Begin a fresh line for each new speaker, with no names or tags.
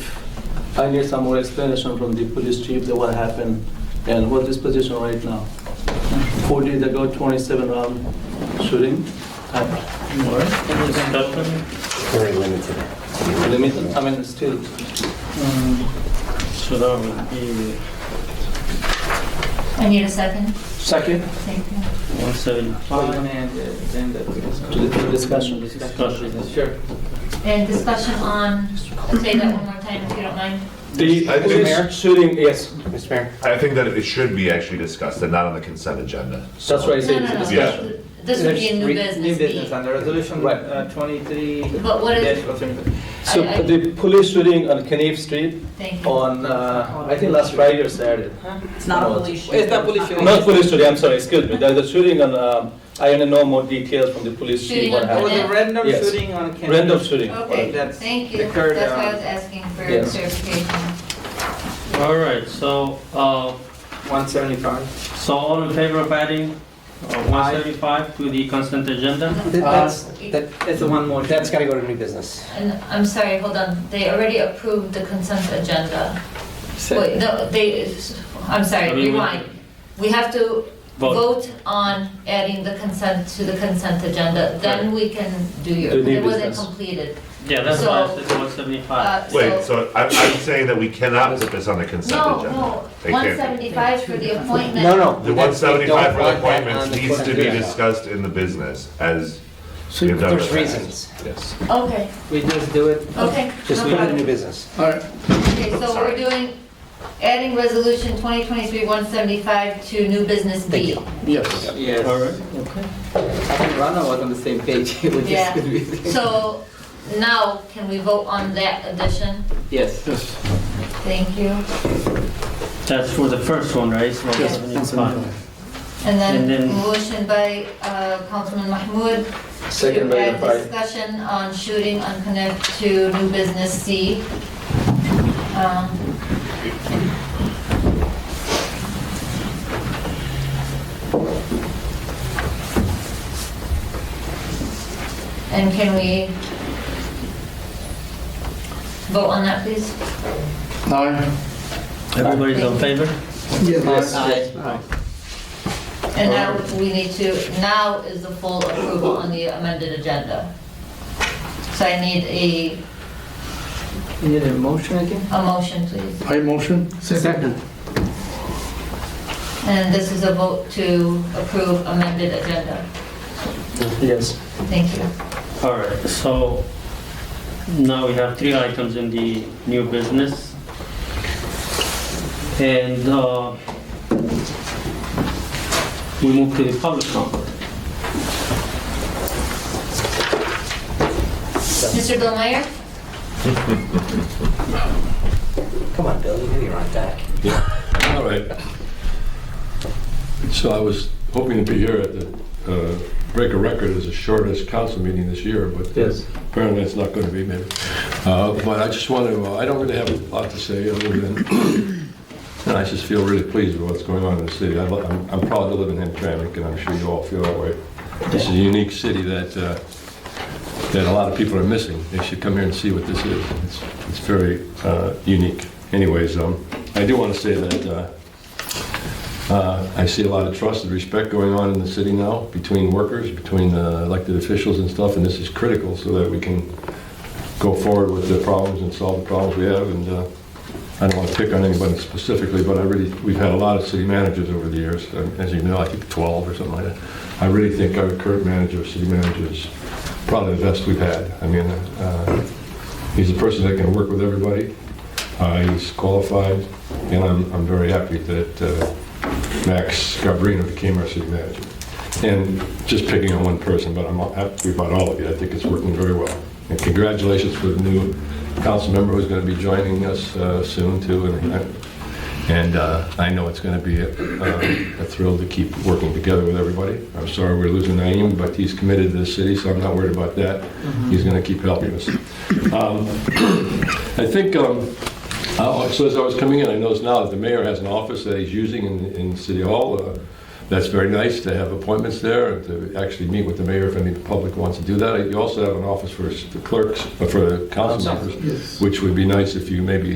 If I need some more explanation from the police chief that what happened and what is position right now. Four days ago, 27 round shooting. I-
Very limited.
Limited, I mean, still.
So that would be
I need a second.
Second,
Thank you.
175.
to the to discussion.
Discussion.
Sure.
And discussion on, say that one more time if you don't mind.
The
I think-
police shooting, yes,
Mr. Mayor?
I think that it should be actually discussed and not on the consent agenda.
that's why I
No,
said
no,
it's a
no.
discussion.
This would be a new
Re-
business.
New business
B.
under resolution
Right.
uh, 23.
But what is,
dash 03.
So
I- I-
the police shooting on Knief Street
thank you.
on, uh, I think last Friday or Saturday.
It's not a
Well,
police shooting.
it's not police shooting.
Not police shooting, I'm sorry, excuse me. There's a shooting on, um, I don't know more details from the police chief
Shooting
what
on Oh,
There
happened.
was a
Yeah.
random
Yes.
shooting on Kennedy.
Random shooting.
Okay,
That's
thank
the
you. That's
current,
why I
uh,
was asking for
yes.
clarification.
All right, so, uh,
175.
so all in favor of adding uh, 175 to the consent
Um,
agenda?
Uh,
Th- That's, that,
It's a one more.
Uh, that's gotta go to new business.
And I'm sorry, hold on. They already approved the consent agenda. Wait, no, they, I'm sorry,
I mean, we-
rewind. We have to
Vote.
vote on adding the consent to the consent agenda, then we can do your,
Do new
it wasn't
business.
completed.
Yeah, that's why I
So-
said 175.
Uh,
Wait,
so-
so I'm, I'm saying that we cannot put this on the consent
No,
agenda.
no,
They
one
can't.
seventy-five for the appointment.
No, no.
The one
that's- they
seventy-five
don't
for
want that
appointments
on the
needs to be
agenda.
discussed in the business as we have done in the
There's
past.
reasons.
Yes.
Okay,
We just do it.
okay.
Just
no
put it in
problem.
new business.
Okay, so we're
Sorry.
doing, adding resolution twenty twenty-three one seventy-five to new business
Thank
B.
you.
Yes.
All right,
I think Rana was on the same page. It was
Yeah.
just confusing.
So now, can we vote on that addition?
Yes.
Thank you.
that's for the first one, right? So
Yes.
175.
And
And
then
then-
motion by uh, Councilman Mahmoud
Second by
To add
Rafael.
discussion on shooting on connect to new business C. Um, And can we vote on that, please?
Everybody's in favor?
Uh,
And now we need to, now is the full approval on the amended agenda. So I need a,
You need a motion again?
a motion, please.
I motion.
Second.
And this is a vote to approve amended agenda.
Yes.
Thank you.
All right, so now we have three items in the new business. And uh, we move to the public comment.
Mr. Bill Meyer?
Come on, Bill, you know you're on deck.
All right.
So I was hoping to be here at the, uh, break a record as the shortest council meeting this year, but
Yes.
apparently it's not going to be maybe. Uh, But I just want to, I don't really have a lot to say other than, and I just feel really pleased with what's going on in the city. I lo- I'm I'm proud to live in Hamtramck, and I'm sure you all feel that way. This is a unique city that, uh, that a lot of people are missing. They should come here and see what this is. It's it's very uh, unique. Anyways, um, I do want to say that uh, uh, I see a lot of trust and respect going on in the city now between workers, between uh, elected officials and stuff, and this is critical so that we can go forward with the problems and solve the problems we have. And uh, I don't want to pick on anybody specifically, but I really, we've had a lot of city managers over the years, um, as you know, I think 12 or something like that. I really think our current manager, city manager, is probably the best we've had. I mean, uh, he's a person that can work with everybody. Uh, He's qualified, and I'm I'm very happy that uh, Max Gabrino became our city manager. And just picking on one person, but I'm happy about all of you. I think it's working very well. And congratulations for the new council member who's going to be joining us uh, soon, too. And I- And uh, I know it's going to be a- a thrill to keep working together with everybody. I'm sorry we're losing Naeem, but he's committed to the city, so I'm not worried about that. He's going to keep helping us. Um, I think, um, uh, so as I was coming in, I noticed now that the mayor has an office that he's using in, in City Hall. Uh, That's very nice to have appointments there and to actually meet with the mayor if any public wants to do that. You also have an office for the clerks, uh, for the council members, which would be nice if you maybe